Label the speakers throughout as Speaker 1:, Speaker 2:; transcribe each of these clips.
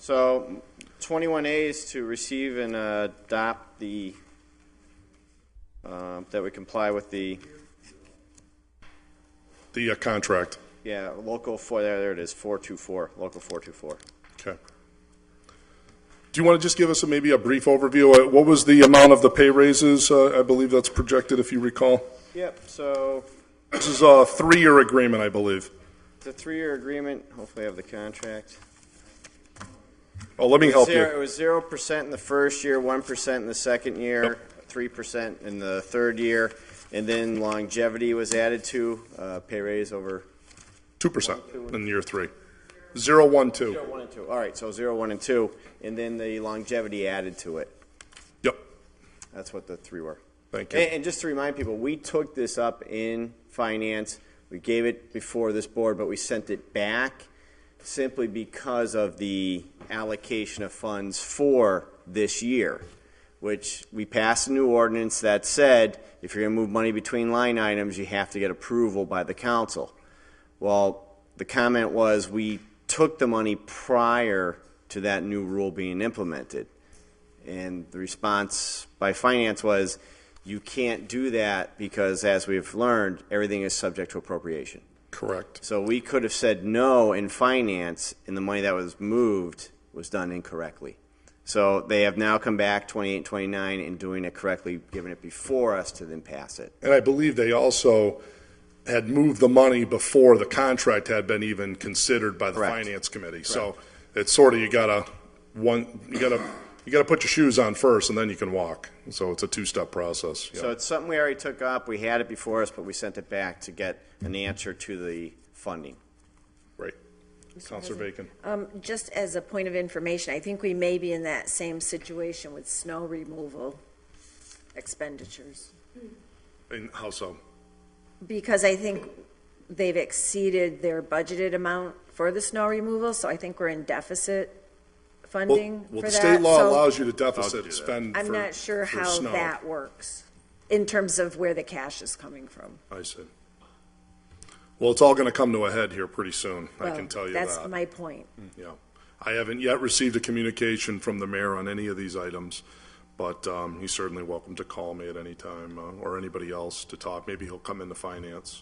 Speaker 1: So 21A is to receive and uh, adopt the, uh, that we comply with the,
Speaker 2: The uh, contract.
Speaker 1: yeah, local four, there there it is, 424, local 424.
Speaker 2: Okay. Do you want to just give us a- maybe a brief overview? Uh, What was the amount of the pay raises? Uh, I believe that's projected, if you recall.
Speaker 1: Yep, so
Speaker 2: This is a three-year agreement, I believe.
Speaker 1: the three-year agreement, hopefully I have the contract.
Speaker 2: Oh, let me help
Speaker 1: Zero- It
Speaker 2: you.
Speaker 1: was zero percent in the first year, one percent in the second year, three percent in the third year, and then longevity was added to, uh, pay raise over.
Speaker 2: Two percent in year three. Zero, one, two.
Speaker 1: Zero, one, and two. All right, so zero, one, and two, and then the longevity added to it.
Speaker 2: Yep.
Speaker 1: That's what the three were.
Speaker 2: Thank
Speaker 1: And,
Speaker 2: you.
Speaker 1: and just to remind people, we took this up in finance. We gave it before this board, but we sent it back simply because of the allocation of funds for this year, which we passed a new ordinance that said if you're going to move money between line items, you have to get approval by the council. Well, the comment was we took the money prior to that new rule being implemented. And the response by finance was, you can't do that because, as we've learned, everything is subject to appropriation.
Speaker 2: Correct.
Speaker 1: So we could have said no in finance, and the money that was moved was done incorrectly. So they have now come back 28, 29, and doing it correctly, giving it before us to then pass it.
Speaker 2: And I believe they also had moved the money before the contract had been even considered by the
Speaker 1: Correct.
Speaker 2: finance committee. So it's sort of, you gotta, one, you gotta, you gotta put your shoes on first and then you can walk. So it's a two-step process. Yeah.
Speaker 1: So it's something we already took up. We had it before us, but we sent it back to get an answer to the funding.
Speaker 2: Great. Counselor Bacon.
Speaker 3: Um, Just as a point of information, I think we may be in that same situation with snow removal expenditures. uh,
Speaker 2: And how so?
Speaker 3: Because I think they've exceeded their budgeted amount for the snow removal, so I think we're in deficit funding
Speaker 2: Well,
Speaker 3: for
Speaker 2: the
Speaker 3: that.
Speaker 2: state law
Speaker 3: So
Speaker 2: allows you to deficit spend
Speaker 3: I'm
Speaker 2: for-
Speaker 3: not sure
Speaker 2: for
Speaker 3: how
Speaker 2: snow.
Speaker 3: that works in terms of where the cash is coming from.
Speaker 2: I see. Well, it's all gonna come to a head here pretty soon, I
Speaker 3: Well,
Speaker 2: can tell you that.
Speaker 3: That's my point.
Speaker 2: Yeah. I haven't yet received a communication from the mayor on any of these items, but um, he's certainly welcome to call me at any time, uh, or anybody else to talk. Maybe he'll come into finance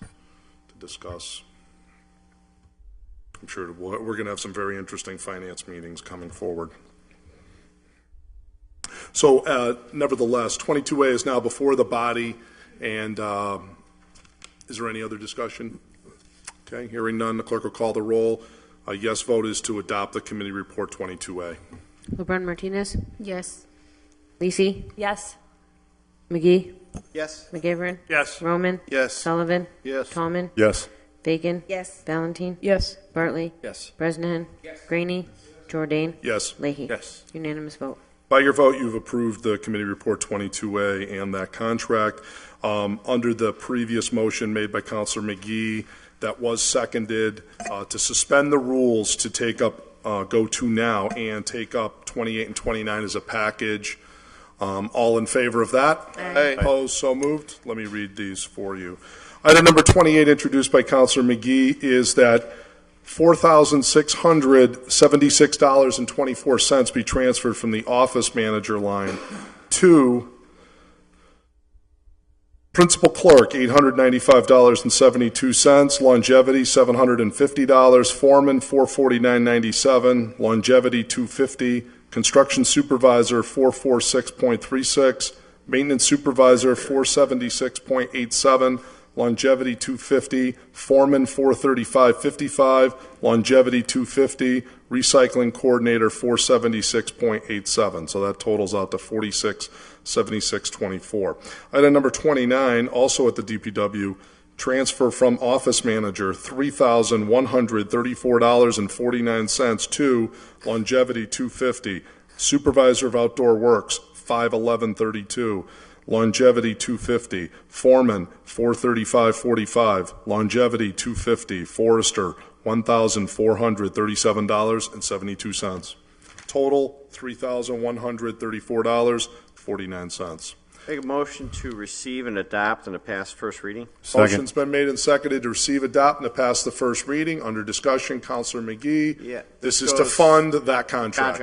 Speaker 2: to discuss. I'm sure we'll- we're going to have some very interesting finance meetings coming forward. So uh, nevertheless, 22A is now before the body, and um, is there any other discussion? Okay, hearing none, the clerk will call the roll. A yes vote is to adopt the committee report 22A.
Speaker 4: LeBron Martinez,
Speaker 5: Yes.
Speaker 4: Lisi,
Speaker 5: Yes.
Speaker 4: McGee,
Speaker 1: Yes?
Speaker 4: McGivern,
Speaker 6: Yes.
Speaker 4: Roman,
Speaker 6: Yes.
Speaker 4: Sullivan,
Speaker 6: Yes.
Speaker 4: Tallman,
Speaker 2: Yes.
Speaker 4: Bacon,
Speaker 3: Yes,
Speaker 4: Valentine,
Speaker 5: Yes.
Speaker 4: Bartley,
Speaker 1: Yes.
Speaker 4: Bresnahan, Graney, Jordan,
Speaker 2: Yes.
Speaker 4: Leahy.
Speaker 6: Yes.
Speaker 4: Unanimous vote.
Speaker 2: By your vote, you've approved the committee report 22A and that contract. Um, Under the previous motion made by Counselor McGee, that was seconded, uh, to suspend the rules to take up, uh, go to now and take up 28 and 29 as a package. Um, All in favor of that?
Speaker 6: Aye.
Speaker 2: Opposed, so moved. Let me read these for you. Item number 28, introduced by Counselor McGee, is that $4,676.24 be transferred from the office manager line to principal clerk, $895.72, longevity, $750, foreman, $449.97, longevity, $250, construction supervisor, $446.36, maintenance supervisor, $476.87, longevity 250, foreman 435.55, longevity 250, recycling coordinator 476.87. So that totals out to 467624. Item number 29, also at the DPW, transfer from office manager $3,134.49 to longevity 250, supervisor of outdoor works 51132, longevity 250, foreman 43545, longevity 250, forester $1,437.72. Total $3,134.49.
Speaker 1: Make a motion to receive and adopt and to pass first reading.
Speaker 2: Motion's been made and seconded to receive, adopt, and to pass the first reading. Under discussion, Counselor McGee.
Speaker 1: Yeah,
Speaker 2: This
Speaker 1: this
Speaker 2: is to
Speaker 1: goes-
Speaker 2: fund that contract.
Speaker 1: Contract.